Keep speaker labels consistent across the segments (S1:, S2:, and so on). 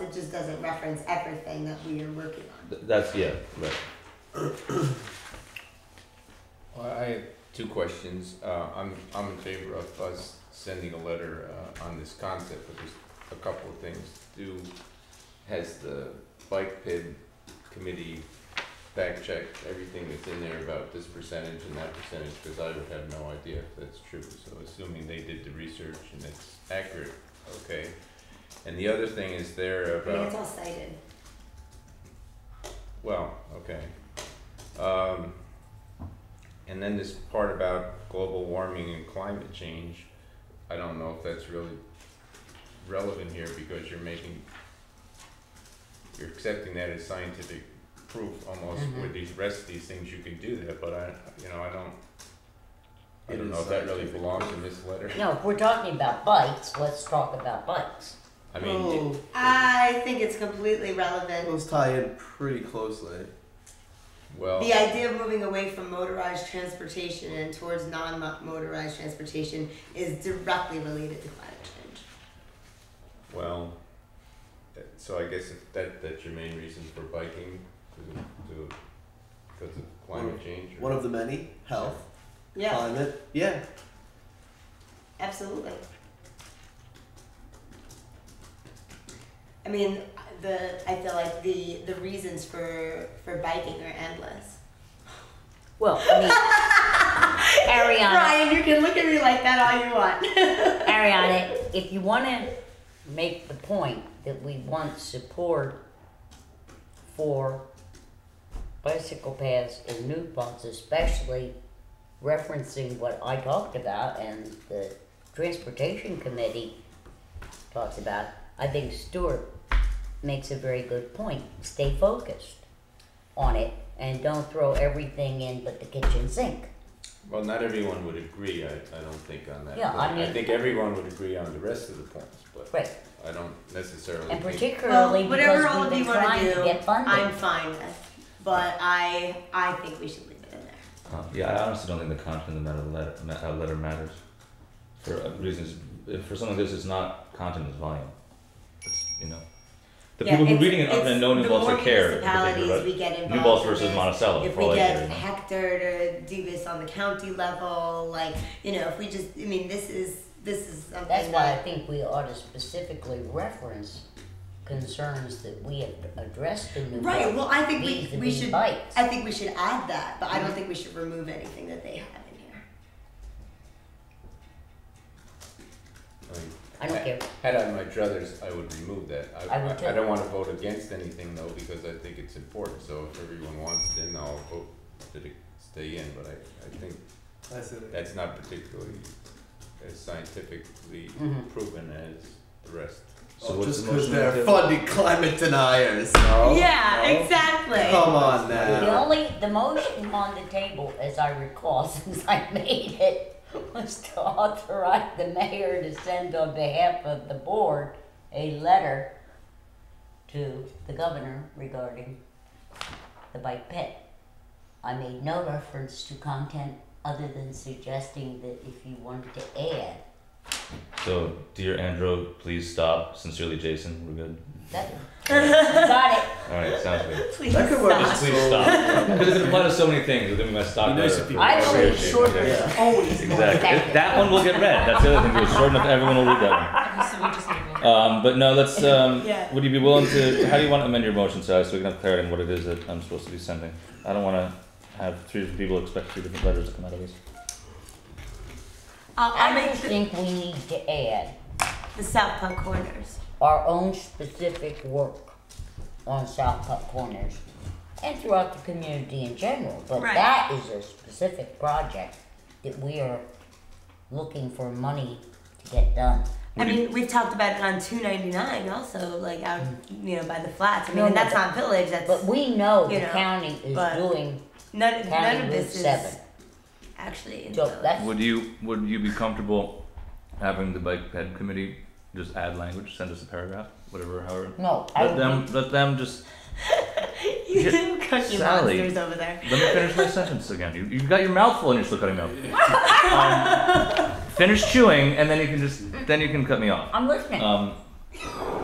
S1: It just doesn't reference everything that we are working on.
S2: Th- That's, yeah, right.
S3: Well, I have two questions. Uh, I'm, I'm in favor of us sending a letter, uh, on this concept, but there's a couple of things. Do, has the bike pid committee fact checked everything that's in there about this percentage and that percentage? Cause I would have no idea if that's true, so assuming they did the research and it's accurate, okay. And the other thing is there
S1: I mean,
S3: about,
S1: it's all cited.
S3: well, okay. Um, and then this part about global warming and climate change, I don't know if that's really relevant here because you're making, you're accepting that as scientific proof almost
S2: Mm-hmm.
S4: Mhm.
S3: with these rest of these things, you can do that, but I, you know, I don't, I
S2: It
S3: don't
S2: is
S3: know if that really
S2: scientific
S3: belongs in this letter.
S4: No, if we're talking about bikes, let's talk about bikes.
S3: I
S2: Oh.
S1: Oh.
S3: mean,
S5: uh,
S1: I think it's completely relevant.
S5: Those tie in pretty closely.
S3: well,
S1: The idea of moving away from motorized transportation and towards non-motorized transportation is directly related to climate change.
S3: well, that, so I guess if that, that's your main reason for biking, to, to, because of climate change or?
S5: One of the many health,
S1: Yeah,
S5: climate. Yeah.
S1: absolutely. I mean, the I feel like the the reasons for for biking are endless.
S4: Well, I mean, Ariana,
S1: Ryan, you can look at me like that all you want.
S4: Ariana, if you want to make the point that we want support for bicycle paths and new paths, especially referencing what I talked about and the transportation committee talks about, I think Stuart makes a very good point. Stay focused on it and don't throw everything in but the kitchen sink.
S3: Well, not everyone would agree, I, I don't think on that
S4: Yeah, I
S3: point. I
S4: mean-
S3: think everyone would agree on the rest of the points, but
S4: Right.
S3: I don't necessarily
S4: And
S3: think,
S4: particularly
S1: Well,
S4: because
S1: whatever all
S4: we've
S1: of
S4: been
S1: you wanna
S4: trying to
S1: do,
S4: get funding.
S1: I'm fine with, but I I think we should leave it in there.
S2: Uh, yeah, I honestly don't think the content of the matter letter, ma- uh, letter matters. For uh, reasons, if for something like this, it's not content, it's volume. It's, you know, the
S1: Yeah,
S2: people who
S1: it's-
S2: reading it other than
S1: it's-
S2: know New
S1: the
S2: Balls
S1: more
S2: or care. in
S1: municipalities
S2: particular,
S1: we get
S2: but
S1: involved
S2: New Balls
S1: in
S2: versus
S1: this,
S2: Monticello.
S1: If
S2: for all
S1: we
S2: I care,
S1: get
S2: you know.
S1: Hector to do this on the county level, like you know, if we just, I mean, this is this is something
S4: That's why I
S1: that
S4: think we ought to specifically reference concerns that we have addressed in New
S1: right.
S4: York
S1: Well, I think we we
S4: vis-a-vis
S1: should.
S4: Bites.
S1: I think we should add that, but I don't think we should remove anything that they have in here.
S3: I
S4: I
S3: mean,
S4: don't care.
S3: had I my druthers, I would remove that. I,
S4: I would
S3: I, I
S4: too.
S3: don't wanna vote against anything though, because I think it's important, so if everyone wants it in, I'll vote that it stay in, but I, I think
S5: I see.
S3: that's not particularly as scientifically
S4: Mhm.
S3: proven as the rest.
S2: So
S5: oh,
S2: what's
S5: just
S2: the motion
S5: because
S2: on the
S5: they're
S2: table?
S5: funding climate deniers.
S3: No, Oh, no.
S1: exactly.
S5: Come on
S4: The
S5: now.
S4: only, the motion on the table, as I recall, since I made it, was to authorize the mayor to send on behalf of the board a letter to the governor regarding the bike pit. I made no reference to content other than suggesting that if you wanted to add,
S2: So, dear Andrew, please stop. Sincerely, Jason. We're good.
S4: that, got it.
S2: All right, sounds good.
S1: Please
S5: That could work.
S2: Just please stop. Because it applies to so many things. Then we might stop.
S5: Be nice
S2: there
S5: if
S2: for-
S5: you-
S4: I
S5: Yeah.
S4: believe shorter is always more
S2: Exactly. If
S4: effective.
S2: that one will get read. That's the other thing. It's short enough. Everyone will read that
S6: So we just need to
S2: one. Um, but no, let's. Um,
S1: Yeah.
S2: Would you be willing to? How do you want to amend your motion, Sally, so we can have clarity on what it is that I'm supposed to be sending? I don't want to have three different people expect three different letters to come out of this.
S1: I'll, I'll
S4: I
S1: make
S4: don't
S1: the,
S4: think we need to add
S1: the South Punk corners.
S4: our own specific work on South Putt Corners and throughout the community in general, but
S1: Right.
S4: that is a specific project that we are looking for money to get done.
S1: I
S2: Would you-
S1: mean, we've talked about it on two ninety nine also, like out you know by the flats. I mean,
S4: Mm-hmm. No,
S1: and
S4: no,
S1: that's
S4: but-
S1: not village. That's
S4: But we know
S1: You
S4: the
S1: know,
S4: county is
S1: but-
S4: doing
S1: none, none of
S4: County Route
S1: this is
S4: Seven,
S1: actually in
S4: so
S1: village.
S4: that's,
S2: Would you would you be comfortable having the bike ped committee just add language, send us a paragraph, whatever, however?
S4: no, I
S2: Let
S4: would
S2: them let them just
S1: you
S2: Yeah,
S1: little cookie
S2: Sally.
S1: monsters over there.
S2: let me finish my sentence again. You you got your mouthful and you're still cutting me off. Um, finish chewing and then you can just then you can cut me off.
S4: I'm listening.
S2: Um,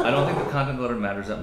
S2: I don't think the content of the letter matters that much.